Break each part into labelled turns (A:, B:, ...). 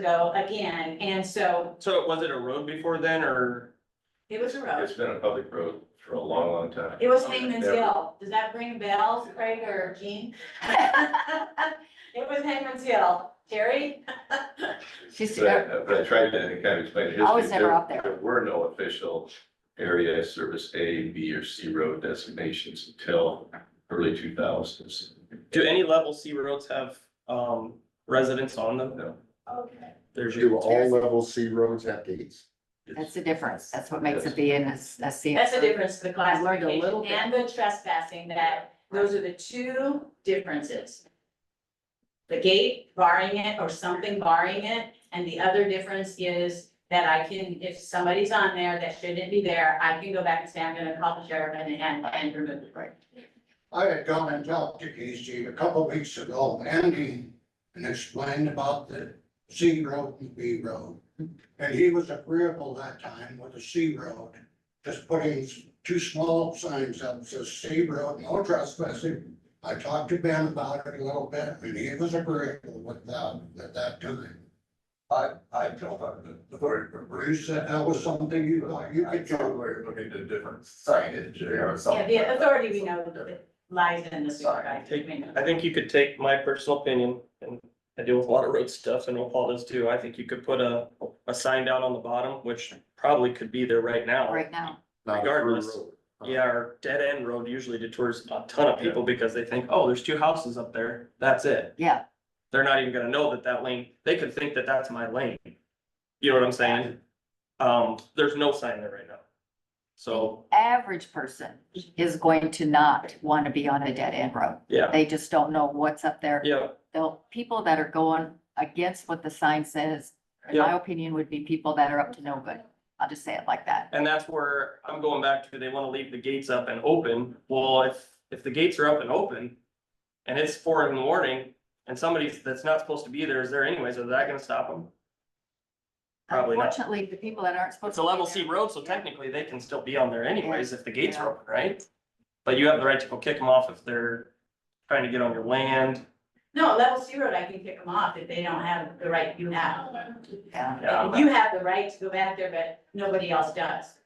A: ago again, and so
B: So was it a road before then or?
A: it was a road.
C: It's been a public road for a long, long time.
A: It was Hangman's
C: Oh, Yeah.
A: Hill. Does that ring bells, Craig or Jean? It was Hangman's Hill. Terry?
D: She's,
C: But I- but I tried to kind of explain the history.
D: I was never up there.
C: There were no official area service A, B, or C road designations until early two thousands.
B: Do any level C roads have um residents on them?
C: No.
A: Okay.
B: There's
E: Do
B: your,
E: all level C roads have gates?
D: that's the difference. That's what makes it be in a, C.
A: That's the difference, the
D: I learned a little
A: classification
D: bit.
A: and the trespassing, that those are the two differences. The gate barring it or something barring it, and the other difference is that I can, if somebody's on there that shouldn't be there, I can go back and say, I'm gonna call the sheriff and, and, and remove it.
D: Right.
F: I had gone and talked to Casey a couple weeks ago, Andy, and explained about the C road and B road. And he was agreeable that time with the C road, just putting s- two small signs up, says C road, no trespassing. I talked to Ben about it a little bit, and he was agreeable with that, at that time. I, I told him, the word, Bruce said that was something you, thought you could do.
C: we're looking at different signage or
A: Yeah, the authority we know that lies in the supervisor, we know.
B: I think you could take my personal opinion and I deal with a lot of road stuff and what Paul does too. I think you could put a, a sign down on the bottom, which probably could be there right now.
D: right now.
E: Not a through
B: Regardless.
E: road.
B: Yeah, our dead end road usually detours a ton of people because they think, oh, there's two houses up there. That's it.
D: Yeah.
B: They're not even gonna know that that lane, they could think that that's my lane. You know what I'm saying? Um, there's no sign there right now. So,
D: Average person is going to not want to be on a dead end road.
B: yeah,
D: They just don't know what's up there.
B: yeah.
D: The people that are going against what the sign says, in my opinion, would be people that are up to no good. I'll just say it like that.
B: And that's where I'm going back to, they wanna leave the gates up and open, well, if, if the gates are up and open. And it's four in the morning, and somebody that's not supposed to be there is there anyways, is that gonna stop them? Probably not.
D: Unfortunately, the people that aren't supposed
B: It's
D: to.
B: a
D: be
B: level
D: there-
B: C road, so technically they can still be on there anyways if the gates
D: Yeah.
B: are open, right? But you have the right to go kick them off if they're trying to get on your land,
A: No, level zero, I can kick them off if they don't have the right you have.
D: Yeah,
B: yeah,
A: You have the right to go back there, but nobody else does.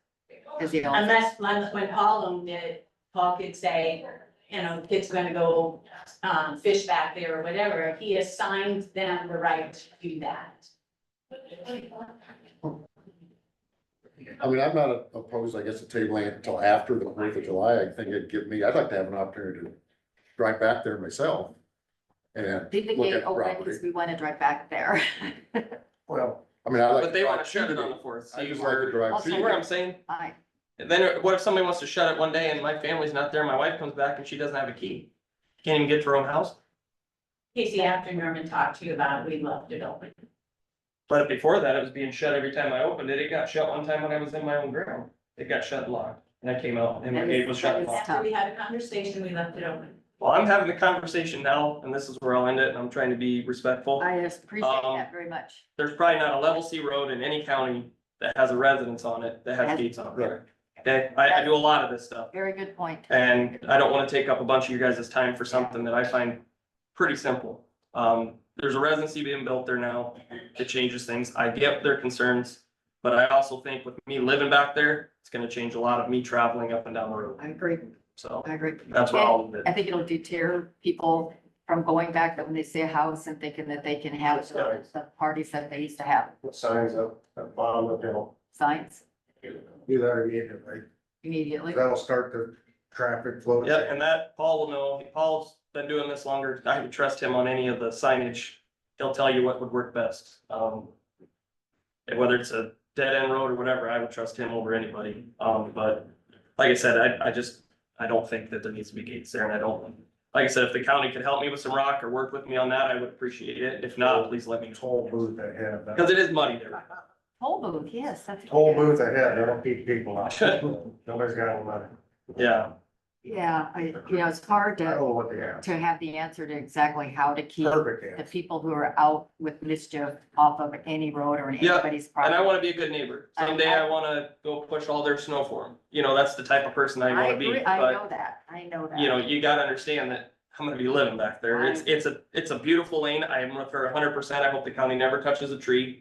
D: 'cause you don't-
A: Unless, unless when Paul owned it, Paul could say, you know, kids gonna go, um, fish back there or whatever, he assigned them the right to do that.
E: I mean, I'm not opposed, I guess, to tabling it until after the Fourth of July. I think it'd give me, I'd like to have an opportunity to drive back there myself. And
D: Leave the
E: look
D: gate
E: at
D: open
E: property.
D: because we want to drive back there.
E: Well, I mean, I like.
B: but they wanna
E: to
B: shut it on the
E: drive
B: fourth,
E: through
B: see
E: the gate. I just like to
B: where,
E: drive
D: Also,
B: see
E: through.
B: where
E: it.
B: I'm saying?
D: Hi.
B: Then what if somebody wants to shut it one day and my family's not there, my wife comes back and she doesn't have a key? Can't even get to her own house?
A: Casey, after Norman talked to you about it, we left it open.
B: But before that, it was being shut every time I opened it. It got shut one time when I was in my own ground. It got shut locked and I came out and my
D: That
B: gate
D: is-
B: was shut
D: that is-
B: locked.
A: After we had a conversation, we left it open.
B: Well, I'm having the conversation now and this is where I'll end it and I'm trying to be respectful.
D: I appreciate
B: Um,
D: that very much.
B: There's probably not a level C road in any county that has a residence on it that has
D: Has-
B: gates on it. Okay, I, I do a lot of this stuff
D: Very good point.
B: and I don't wanna take up a bunch of you guys' time for something that I find pretty simple. Um, there's a residency being built there now. It changes things. I get their concerns. But I also think with me living back there, it's gonna change a lot of me traveling up and down the road.
D: I agree,
B: So
D: I agree.
B: that's where all of it.
D: I think it'll deter people from going back when they see a house and thinking that they can have the the parties that they used to have,
G: signs up at bottom of the hill.
D: signs
G: Do that immediately.
D: immediately.
G: That'll start the traffic flow.
B: Yeah, and that Paul will know. Paul's been doing this longer. I would trust him on any of the signage. He'll tell you what would work best. Um. and whether it's a dead end road or whatever, I would trust him over anybody. Um, but like I said, I, I just, I don't think that there needs to be gates there and I don't. Like I said, if the county could help me with some rock or work with me on that, I would appreciate it. If not, please let me know.
G: Toll booth ahead.
B: Cause it is muddy there.
D: Toll booth, yes, that's.
G: Toll booth ahead, that'll keep people out. Nobody's got any money.
B: Yeah,
D: Yeah, I, you know, it's hard
G: I don't
D: to,
G: know what they have.
D: to have the answer to exactly how to keep
G: Oh, Perfect
D: the
G: answer.
D: people who are out with mischief off of any road or in
B: Yeah,
D: anybody's
B: and I
D: property.
B: wanna be a good neighbor. Someday I wanna go push all their snow for them. You know, that's the type of person I
D: I
B: wanna be,
D: agree,
B: but.
D: I know that, I know that.
B: you know, you gotta understand that I'm gonna be living back there. It's, it's a, it's a beautiful lane. I am with her hundred percent. I hope the county never touches a tree.